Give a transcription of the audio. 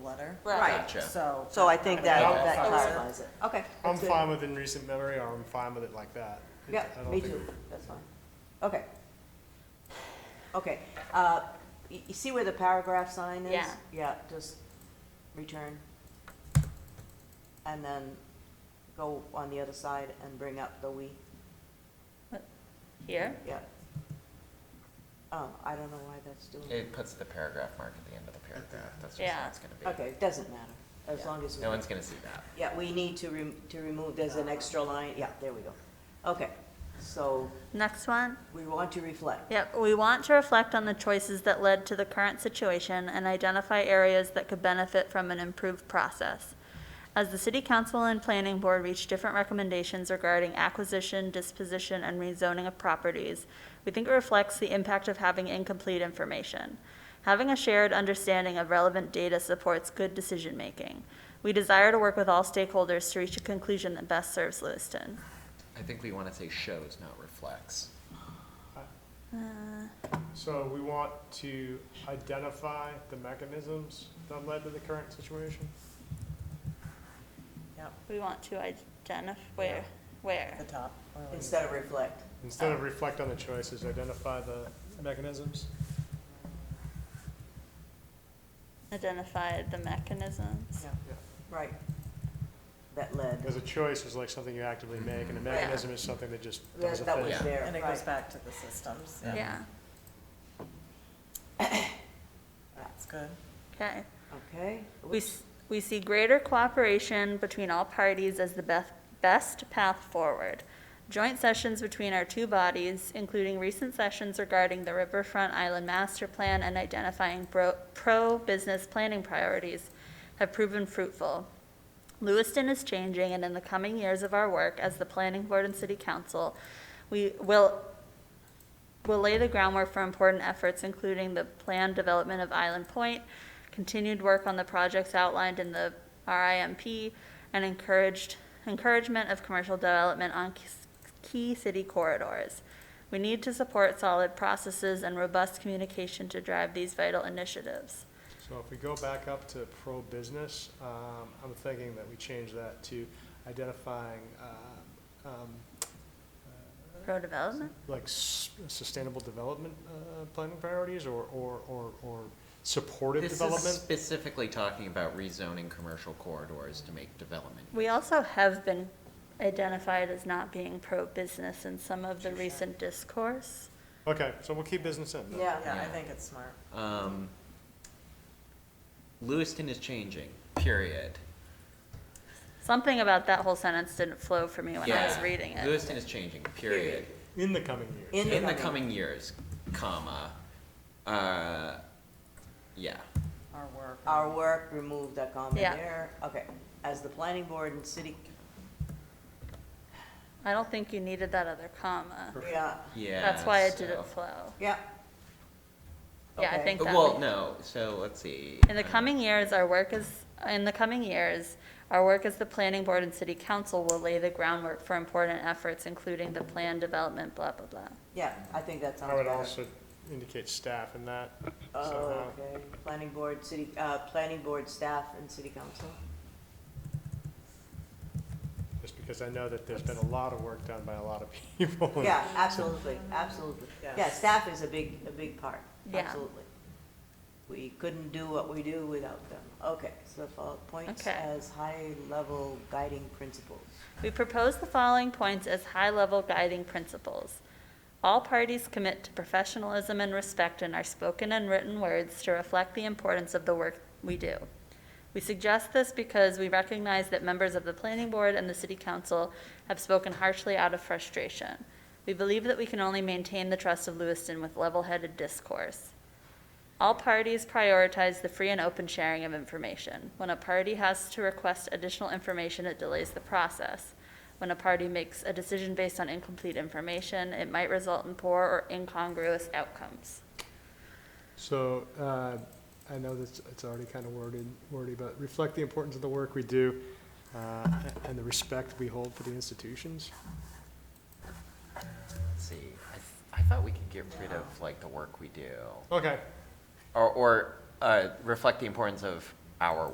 letter. Right. Gotcha. So. So I think that, Okay. that So we're- clarifies it. Okay. I'm that's good. fine with in recent memory, or I'm fine with it like that. It- Yeah, I don't me think- too, that's fine. Okay. Okay, uh, y- you see where the paragraph sign is? Yeah. Yeah, just return. And then go on the other side and bring up the we, Here? yeah. Oh, I don't know why that's doing it. It puts the paragraph mark at the end of the paragraph. That's just Yeah. how it's gonna be. Okay, it doesn't matter, as long as. we- No one's gonna see that. Yeah, we need to rem, to remove, there's an extra line, yeah, there we go. Okay, so Next one. we want to reflect. Yep, we want to reflect on the choices that led to the current situation and identify areas that could benefit from an improved process. As the city council and planning board reach different recommendations regarding acquisition, disposition, and rezoning of properties, we think it reflects the impact of having incomplete information. Having a shared understanding of relevant data supports good decision-making. We desire to work with all stakeholders to reach a conclusion that best serves Lewiston. I think we wanna say shows, not reflects. Uh, So we want to identify the mechanisms that led to the current situation? Yep, We want to identify, where, where? At the top. or like- instead of reflect. Instead of reflect on the choices, identify the mechanisms? identify the mechanisms. Right. That led, Because a choice is like something you actively make, and a mechanism is something that just does that a that was thing. Yeah. there, And it goes right. back to the systems. Yeah. Yeah, That's good. okay. Okay. We, s- we see greater cooperation between all parties as the best, best path forward. Joint sessions between our two bodies, including recent sessions regarding the Riverfront Island Master Plan and identifying pro, pro-business planning priorities, have proven fruitful. Lewiston is changing, and in the coming years of our work as the planning board and city council, we will, will lay the groundwork for important efforts, including the planned development of Island Point, continued work on the projects outlined in the RIMP, and encouraged, encouragement of commercial development on key- key city corridors. We need to support solid processes and robust communication to drive these vital initiatives. So if we go back up to pro-business, um, I'm thinking that we change that to identifying, uh, um, Pro-development? like s- sustainable development uh, planning priorities or, or, or, or supportive This is development? specifically talking about rezoning commercial corridors to make development. We also have been identified as not being pro-business in some of the recent discourse. Okay, so we'll keep business in. then. Yeah, Yeah, I Yeah. think it's smart. Um, Lewiston is changing, period. Something about that whole sentence didn't flow for me when I was Yeah. reading it. Lewiston is changing, period. In the coming years. In the In the coming- coming years, comma, uh, yeah. Our work. our work, remove that comment Yeah. there, okay. As the planning board and city, I don't think you needed that other comma. yeah, Yeah. That's why it so- didn't flow. yeah. Yeah, I Okay. think that. Uh, Well, no, so let's see. In the um, coming years, our work is, in the coming years, our work as the planning board and city council will lay the groundwork for important efforts, including the plan development, blah, blah, blah. Yeah, I think that sounds I would better. also indicate staff in that. Oh, somehow. okay, planning board, city, uh, planning board staff and city council. Just because I know that there's been a lot of work done by a lot of people. and Yeah, absolutely, absolutely. Yeah, Yes. staff is a big, a big part, Yeah. absolutely. We couldn't do what we do without them. Okay, so fo- points Okay. as high-level guiding principles. We propose the following points as high-level guiding principles. All parties commit to professionalism and respect in our spoken and written words to reflect the importance of the work we do. We suggest this because we recognize that members of the planning board and the city council have spoken harshly out of frustration. We believe that we can only maintain the trust of Lewiston with level-headed discourse. All parties prioritize the free and open sharing of information. When a party has to request additional information, it delays the process. When a party makes a decision based on incomplete information, it might result in poor or incongruous outcomes. So, uh, I know that it's already kind of worded, wordy, but reflect the importance of the work we do, uh, and the respect we hold for the institutions. Let's see, I, th- I thought we could get rid of like the work we do, Okay, or, or, uh, reflect the importance of our